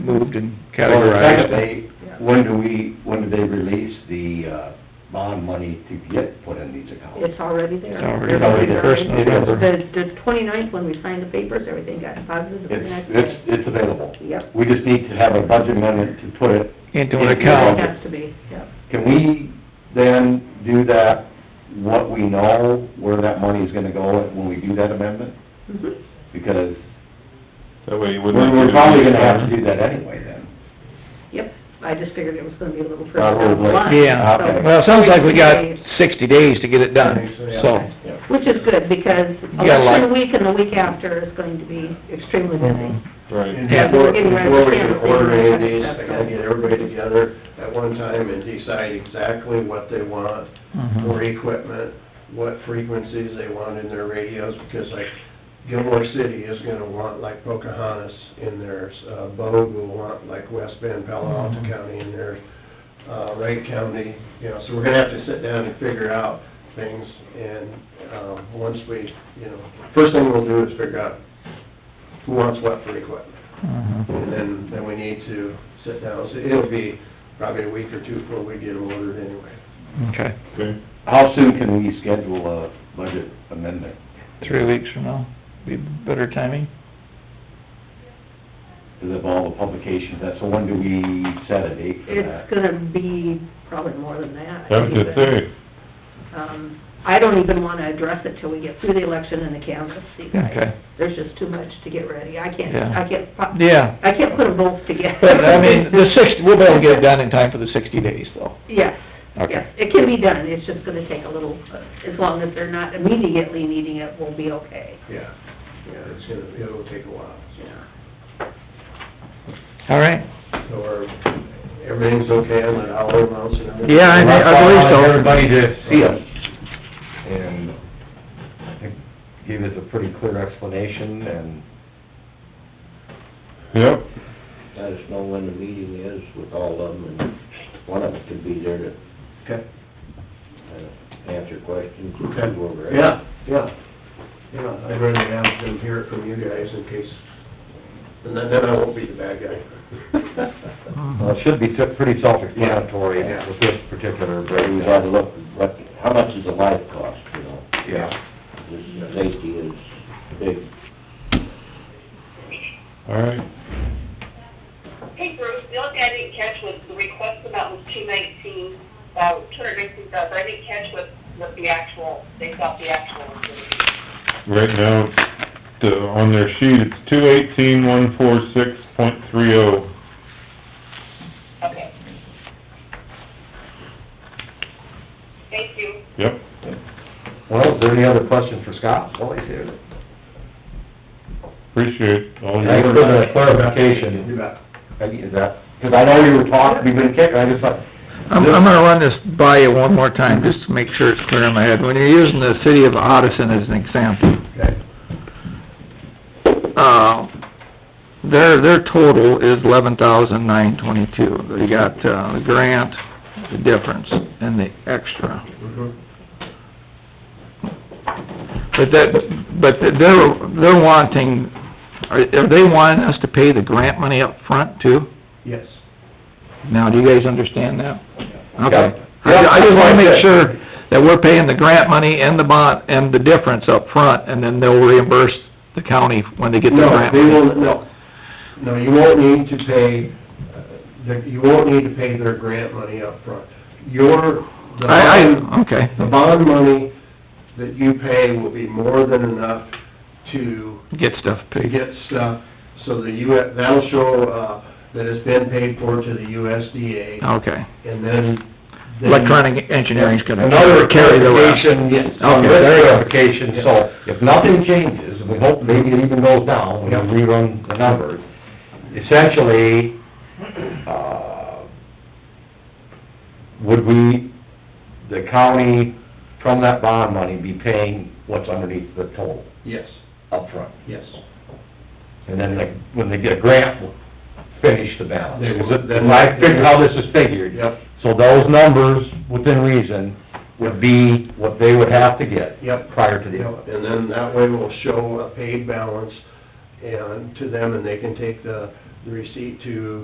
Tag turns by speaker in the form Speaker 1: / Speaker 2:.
Speaker 1: moved and
Speaker 2: Well,
Speaker 1: categorized.
Speaker 2: secondly, when do we, when do they release the, uh, bond money to get put in these accounts?
Speaker 3: It's already there.
Speaker 1: It's already
Speaker 2: there.
Speaker 1: First November.
Speaker 3: The, the twenty-ninth, when we signed the papers, everything got deposited the
Speaker 2: It's,
Speaker 3: next
Speaker 2: it's,
Speaker 3: day.
Speaker 2: it's available.
Speaker 3: Yep.
Speaker 2: We just need to have a budget amendment to put it.
Speaker 1: Into an
Speaker 3: It
Speaker 1: account.
Speaker 3: has to be, yep.
Speaker 2: Can we then do that, what we know, where that money is gonna go when we do that amendment?
Speaker 3: Mhm.
Speaker 2: Because
Speaker 4: That way you
Speaker 2: we're,
Speaker 4: wouldn't.
Speaker 2: we're probably gonna have to do that anyway then.
Speaker 3: Yep, I just figured it was gonna be a little further
Speaker 2: Probably.
Speaker 3: down the line.
Speaker 1: Yeah.
Speaker 3: so-
Speaker 2: Okay.
Speaker 1: Well, it sounds like we got sixty days to get it done, so.
Speaker 2: Yeah.
Speaker 3: Which is good, because
Speaker 1: You got a lot-
Speaker 3: election week and the week after is going to be extremely
Speaker 1: Mm-hmm.
Speaker 3: busy.
Speaker 4: Right.
Speaker 1: Yeah.
Speaker 3: We're getting ready
Speaker 5: Before we
Speaker 3: to
Speaker 5: can
Speaker 3: campaign.
Speaker 5: order any of these, we gotta get everybody together at one time and decide exactly what they want
Speaker 1: Mhm.
Speaker 5: for equipment, what frequencies they want in their radios, because like Gilmore City is gonna want like Pocahontas in theirs, uh, Bogue will want like West Bend, Palo Alto County in theirs, uh, Wright County, you know, so we're gonna have to sit down and figure out things, and, um, once we, you know, first thing we'll do is figure out who wants what for equipment.
Speaker 1: Mhm.
Speaker 5: And then, then we need to sit down, so it'll be probably a week or two before we get them ordered anyway.
Speaker 1: Okay,
Speaker 4: Okay.
Speaker 2: How soon can we schedule a budget amendment?
Speaker 1: three weeks from now, be better timing.
Speaker 2: Because of all the publications, that's, so when do we set a date for that?
Speaker 3: It's gonna be probably more than that.
Speaker 4: I was gonna say,
Speaker 3: Um, I don't even wanna address it till we get through the election and the canvass, you guys.
Speaker 1: Okay.
Speaker 3: There's just too much to get ready. I can't,
Speaker 1: Yeah.
Speaker 3: I can't, pop-
Speaker 1: Yeah.
Speaker 3: I can't put a vote together.
Speaker 1: But, I mean, the sixty, we'll be able to get it done in time for the sixty days, though.
Speaker 3: Yes,
Speaker 1: Okay.
Speaker 3: yes, it can be done, it's just gonna take a little, uh, as long as they're not immediately needing it, we'll be okay,
Speaker 5: Yeah, yeah, it's gonna, it'll take a while.
Speaker 3: yeah.
Speaker 1: All right.
Speaker 5: So are, everything's okay on the hour amounts and everything?
Speaker 1: Yeah, I think- I believe so.
Speaker 2: Everybody to see us.
Speaker 6: and I think gave us a pretty clear explanation, and
Speaker 4: yep,
Speaker 7: let us know when the meeting is with all of them, and one of us could be there to
Speaker 5: Okay,
Speaker 7: uh, answer questions. and
Speaker 5: okay,
Speaker 7: see where we're at.
Speaker 5: yeah, yeah, yeah, I'd rather have them hear it from you guys in case, and then, then I won't be the bad guy.
Speaker 1: Mm-hmm.
Speaker 6: well, it should be se- pretty self-explanatory
Speaker 5: Yeah.
Speaker 6: with this particular
Speaker 7: But we
Speaker 6: breakdown.
Speaker 7: gotta look, what, how much does a life cost, you know?
Speaker 6: Yeah.
Speaker 7: This safety is big.
Speaker 4: all right.
Speaker 8: Hey Bruce, the only thing I didn't catch was the request amount was two nineteen, uh, two hundred nineteen thousand, I didn't catch what, what the actual, they thought the actual was gonna be.
Speaker 4: Right now, it's, the- on their sheet, it's two eighteen, one four six point three oh.
Speaker 8: Okay. Thank you.
Speaker 4: Yep.
Speaker 6: Well, is there any other questions for Scott while he's here?
Speaker 4: Appreciate all
Speaker 6: Thanks
Speaker 4: your
Speaker 6: for
Speaker 4: work.
Speaker 6: the clarification.
Speaker 5: You bet.
Speaker 6: Peggy, Is that, because I know you were talking, you've been kicking, I just thought...
Speaker 1: I'm, I'm gonna run this by you one more time, just to make sure it's clear in my head. When you're using the city of Odison as an example,
Speaker 5: Okay,
Speaker 1: uh, their, their total is eleven thousand nine twenty-two. They got, uh, the grant, the difference, and the extra.
Speaker 5: mhm.
Speaker 1: But that, but they're, they're wanting, are, are they wanting us to pay the grant money up front too?
Speaker 5: yes.
Speaker 1: Now, do you guys understand that? Okay.
Speaker 6: Yeah.
Speaker 1: I, I just wanna make sure that we're paying the grant money and the bond, and the difference up front, and then they'll reimburse the county when they get the
Speaker 5: No,
Speaker 1: grant.
Speaker 5: they
Speaker 1: money.
Speaker 5: will, no, no, you won't need to pay, uh, the- you won't need to pay their grant money up front. Your, the
Speaker 1: I,
Speaker 5: bond,
Speaker 1: I, okay,
Speaker 5: the bond money that you pay will be more than enough to
Speaker 1: get stuff
Speaker 5: to
Speaker 1: paid.
Speaker 5: get stuff, so the U, that'll show, uh, that it's been paid for to the USDA,
Speaker 1: Okay.
Speaker 5: and then... then-
Speaker 1: Oh. Electronic engineering's gonna
Speaker 6: Another
Speaker 1: carry the rest.
Speaker 6: clarification, yes,
Speaker 1: Okay,
Speaker 6: another
Speaker 1: there you go.
Speaker 6: clarification, so if nothing changes, and we hope maybe it even goes down, when we rerun the numbers, essentially, uh, would we, the county, from that bond money, be paying what's underneath the total
Speaker 5: Yes,
Speaker 6: upfront?
Speaker 5: yes.
Speaker 6: And then the, when they get a grant, we'll finish the balance.
Speaker 5: They will.
Speaker 6: Is it- Then I figure how this is figured.
Speaker 5: Yep,
Speaker 6: So those numbers, within reason, would be what they would have to get.
Speaker 5: Yep.
Speaker 6: Prior to the,
Speaker 5: yep, and then that way we'll show a paid balance and, to them, and they can take the, the receipt to